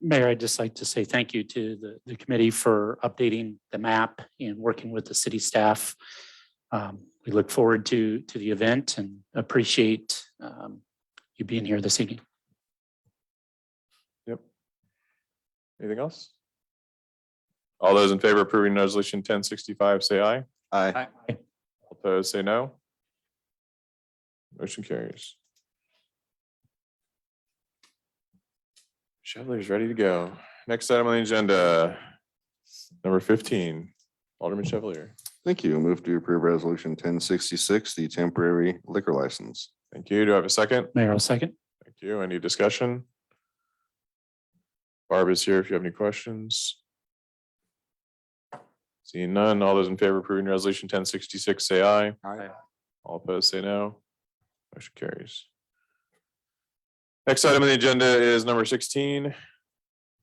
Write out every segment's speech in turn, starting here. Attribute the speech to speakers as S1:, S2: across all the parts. S1: Mayor, I'd just like to say thank you to the, the committee for updating the map and working with the city staff. Um, We look forward to, to the event and appreciate um, you being here this evening.
S2: Anything else? All those in favor of approving resolution ten sixty-five, say aye.
S3: Aye.
S2: All Opposed, say no. Motion carries. Shovelers ready to go. Next item on the agenda, number fifteen, Alderman Chevalier.
S3: Thank you. Move to approve resolution ten sixty-six, the temporary liquor license.
S2: Thank you. Do I have a second?
S1: Mayor, I'll second.
S2: Thank you. Any discussion? Barb is here if you have any questions. Seeing none, all those in favor of approving resolution ten sixty-six, say aye.
S3: Aye.
S2: All opposed, say no. Motion carries. Next item on the agenda is number sixteen.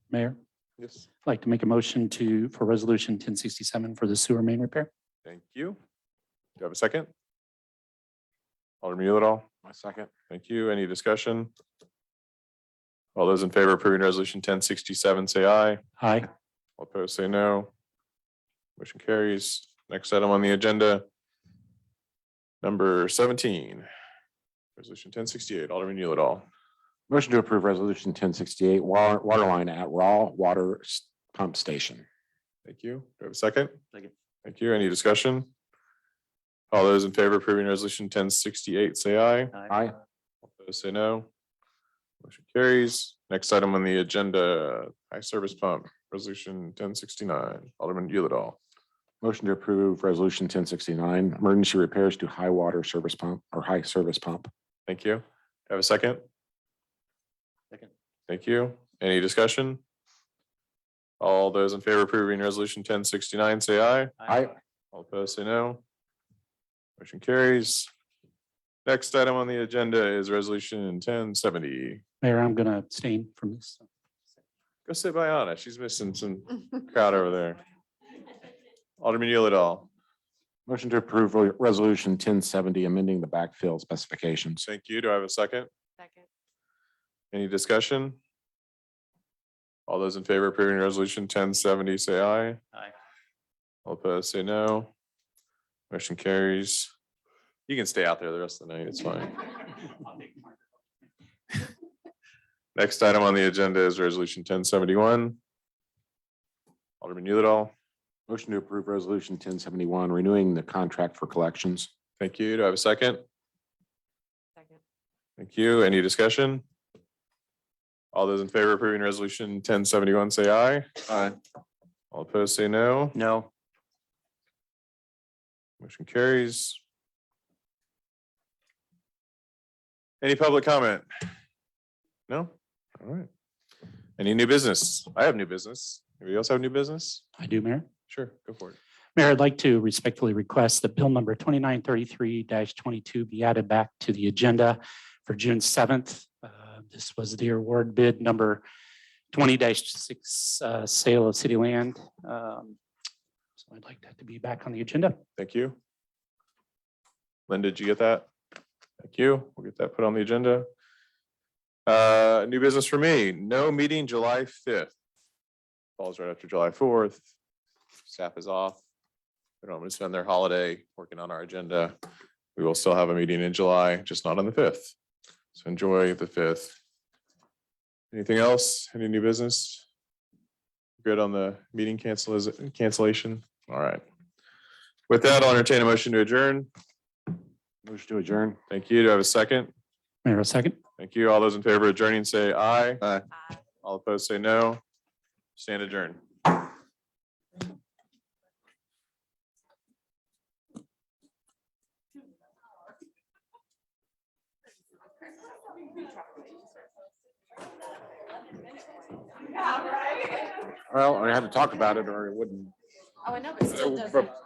S1: Mayor,
S2: Yes.
S1: I'd like to make a motion to, for resolution ten sixty-seven for the sewer main repair.
S2: Thank you. Do you have a second? Alderman Yulidol. My second. Thank you. Any discussion? All those in favor of approving resolution ten sixty-seven, say aye.
S1: Aye.
S2: All opposed, say no. Motion carries. Next item on the agenda. Number seventeen. Resolution ten sixty-eight, Alderman Yulidol.
S4: Motion to approve resolution ten sixty-eight, water, water line at Raw Water S- Pump Station.
S2: Thank you. Do I have a second?
S1: Second.
S2: Thank you. Any discussion? All those in favor of approving resolution ten sixty-eight, say aye.
S4: Aye.
S2: All Those say no. Motion carries. Next item on the agenda, high service pump, resolution ten sixty-nine, Alderman Yulidol.
S4: Motion to approve resolution ten sixty-nine, emergency repairs to high water service pump or high service pump.
S2: Thank you. Have a second?
S1: Second.
S2: Thank you. Any discussion? All those in favor of approving resolution ten sixty-nine, say aye.
S4: Aye.
S2: All opposed, say no. Motion carries. Next item on the agenda is resolution ten seventy.
S1: Mayor, I'm gonna abstain from this.
S2: Go sit by Anna. She's missing some crowd over there. Alderman Yulidol,
S4: Motion to approve re- resolution ten seventy, amending the backfill specifications.
S2: thank you. Do I have a second?
S5: Second.
S2: Any discussion? All those in favor of approving resolution ten seventy, say aye.
S1: Aye.
S2: All opposed, say no. Motion carries. You can stay out there the rest of the night. It's fine. Next item on the agenda is resolution ten seventy-one. Alderman Yulidol,
S4: Motion to approve resolution ten seventy-one, renewing the contract for collections.
S2: thank you. Do I have a second?
S5: Second.
S2: Thank you. Any discussion? All those in favor of approving resolution ten seventy-one, say aye.
S3: Aye.
S2: All opposed, say no.
S1: No.
S2: Motion carries. Any public comment? No? All right. Any new business? I have new business. Anybody else have new business?
S1: I do, Mayor.
S2: Sure, go for it.
S1: Mayor, I'd like to respectfully request that bill number twenty-nine thirty-three twenty-two be added back to the agenda for June seventh. Uh, This was the award bid number twenty six, uh, sale of city land. Um, So I'd like that to be back on the agenda.
S2: Thank you. Linda, did you get that? Thank you. We'll get that put on the agenda. Uh, new business for me, no meeting July fifth. Falls right after July fourth. Staff is off. They don't want to spend their holiday working on our agenda. We will still have a meeting in July, just not on the fifth. So enjoy the fifth. Anything else? Any new business? Good on the meeting cancel cancellation? All right. With that, I'll entertain a motion to adjourn.
S4: Motion to adjourn.
S2: Thank you. Do I have a second?
S1: Mayor, a second.
S2: Thank you. All those in favor of adjourning, say aye.
S3: Aye.
S5: Aye.
S2: All opposed, say no. Stand adjourned.
S4: Well, I had to talk about it or it wouldn't.
S5: Oh, I know, but still
S4: Uh,
S5: doesn't.
S4: but-